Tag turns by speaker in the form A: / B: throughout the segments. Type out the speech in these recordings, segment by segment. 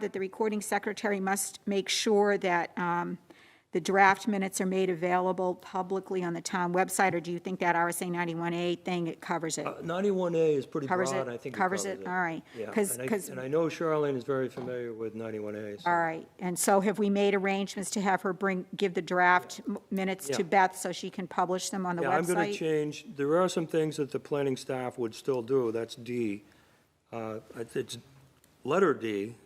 A: that the recording secretary must make sure that um, the draft minutes are made available publicly on the town website, or do you think that RSA 91A thing, it covers
B: Uh,
A: it?
B: 91A is pretty broad,
A: Covers it?
B: I think it covers it.
A: All right.
B: Yeah,
A: Because,
B: and I- And I know Charlene is very familiar with 91A,
A: all
B: so
A: right. And so have we made arrangements to have her bring, give the draft m- minutes to
B: Yeah.
A: Beth so she can publish them on the website?
B: Yeah, I'm going to change, there are some things that the planning staff would still do, that's D. Uh, It's letter D,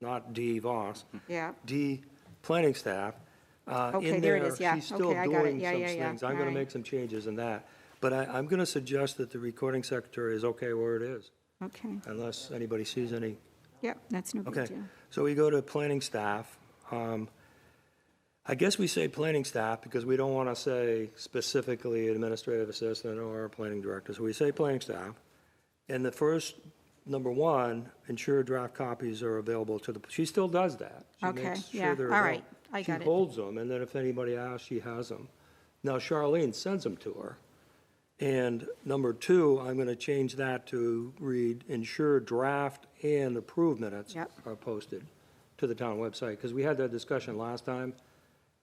B: not D Voss,
A: Yeah.
B: D, planning staff. Uh, in
A: Okay, there it is, yeah.
B: She's still
A: Okay, I got it.
B: doing
A: Yeah,
B: some
A: yeah, yeah.
B: things, I'm going to
A: Alright.
B: make some changes in that. But I, I'm going to suggest that the recording secretary is okay where it is,
A: Okay.
B: unless anybody sees any
A: Yep, that's no big
B: Okay,
A: deal.
B: so we go to planning staff. Um, I guess we say planning staff because we don't want to say specifically administrative assistant or planning director, so we say planning staff. And the first, number one, ensure draft copies are available to the, she still does that. She
A: Okay,
B: makes sure
A: yeah,
B: they're
A: all right,
B: available.
A: I got
B: She
A: it.
B: holds them, and then if anybody asks, she has them. Now Charlene sends them to her. And number two, I'm going to change that to read, ensure draft and approved minutes
A: Yep.
B: are posted to the town website, because we had that discussion last time,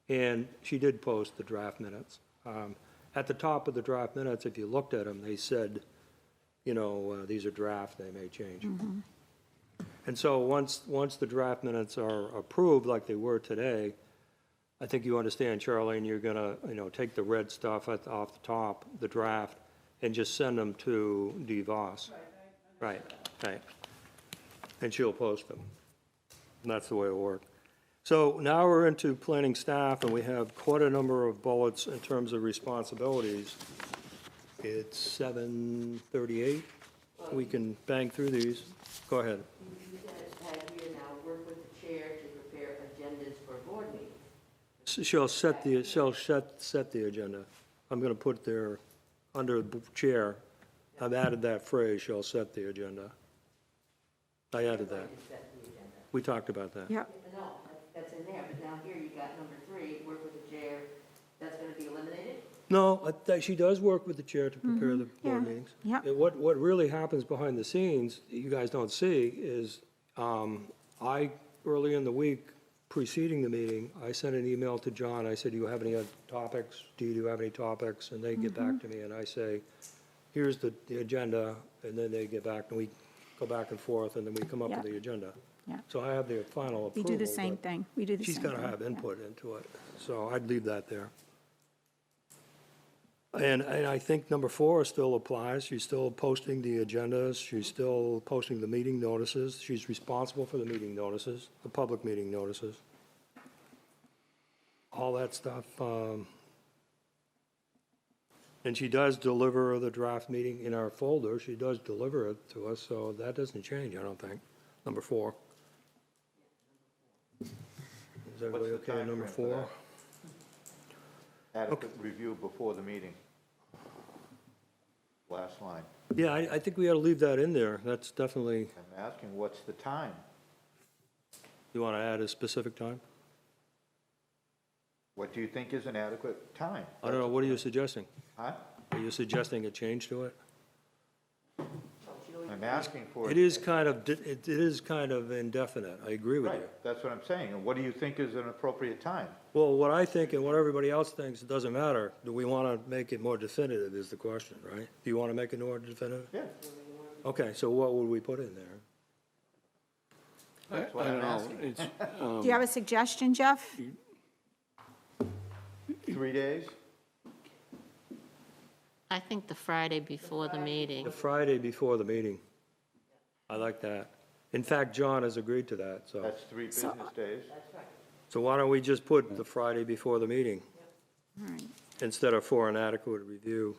B: and she did post the draft minutes. Um, At the top of the draft minutes, if you looked at them, they said, you know, uh, these are draft, they may change. And so once, once the draft minutes are approved, like they were today, I think you understand, Charlene, you're gonna, you know, take the red stuff at- off the top, the draft, and just send them to DeVos. Right, right. And she'll post them. And that's the way it'll work. So now we're into planning staff, and we have quite a number of bullets in terms of responsibilities. It's 7:38. We can bang through these. Go ahead.
C: You guys have here now, work with the chair to prepare agendas for board meetings.
B: Shall set the, shall set, set the agenda. I'm going to put there, under the chair, I've added that phrase, shall set the agenda. I added that. We talked about that.
A: Yep,
C: No, that- that's in there, but down here you got number three, work with the chair, that's gonna be eliminated?
B: No, I th- she does work with the chair to prepare the
A: Mm-hmm. yeah,
B: board meetings.
A: yeah.
B: And What, what really happens behind the scenes, that you guys don't see, is um, I, early in the week preceding the meeting, I sent an email to John. I said, do you have any other topics? Do you have any topics? And they get
A: Mm-hmm.
B: back to me and I say, here's the, the agenda, and then they get back and we go back and forth and then we come up with
A: Yeah.
B: the agenda.
A: Yeah.
B: So I have the final
A: we
B: approval.
A: do the same
B: but
A: thing. We do the same
B: She's
A: thing.
B: got to have
A: yeah.
B: input into it, so I'd leave that there. And, and I think number four still applies, she's still posting the agendas, she's still posting the meeting notices, she's responsible for the meeting notices, the public meeting notices. All that stuff, um, and she does deliver the draft meeting in our folder, she does deliver it to us, so that doesn't change, I don't think, number four. Is everybody
D: What's the
B: okay on number
D: timeframe for
B: four?
D: that? adequate review before the meeting. Last line.
B: Yeah, I, I think we ought to leave that in there. That's definitely,
D: I'm asking, what's the time?
B: you want to add a specific time?
D: What do you think is an adequate time?
B: I don't know, what are you suggesting?
D: Huh?
B: Are you suggesting a change to it?
D: I'm asking for.
B: It is kind of, di- it it is kind of indefinite, I agree with you.
D: Right, that's what I'm saying. And what do you think is an appropriate time?
B: Well, what I think and what everybody else thinks, it doesn't matter. Do we want to make it more definitive is the question, right? Do you want to make it more definitive?
D: Yeah,
B: Okay, so what would we put in there?
D: that's what I'm asking.
E: It's,
B: Um,
A: Do you have a suggestion, Jeff?
D: Three days?
F: I think the Friday before the meeting.
B: The Friday before the meeting. I like that. In fact, John has agreed to that, so.
D: That's three business days.
B: So why don't we just put the Friday before the meeting? Instead of for an adequate review.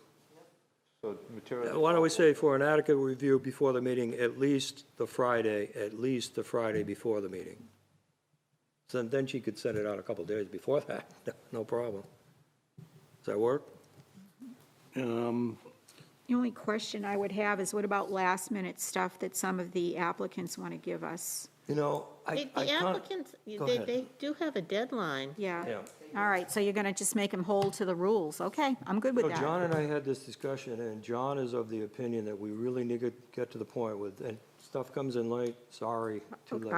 D: So material.
B: Why don't we say for an adequate review before the meeting, at least the Friday, at least the Friday before the meeting? So then she could send it out a couple days before that, no problem. Does that work?
E: um,
A: The only question I would have is what about last-minute stuff that some of the applicants want to give us?
B: You know, I,
F: The
B: I
F: the
B: can't,
F: applicants,
B: Go
F: they,
B: ahead.
F: they do have a deadline.
A: Yeah.
B: yeah.
A: All right, so you're going to just make them hold to the rules. Okay, I'm good with
B: No, John
A: that.
B: and I had this discussion, and John is of the opinion that we really need to get to the point with, and
A: Stuff comes in late, sorry, too
B: Okay,
A: late.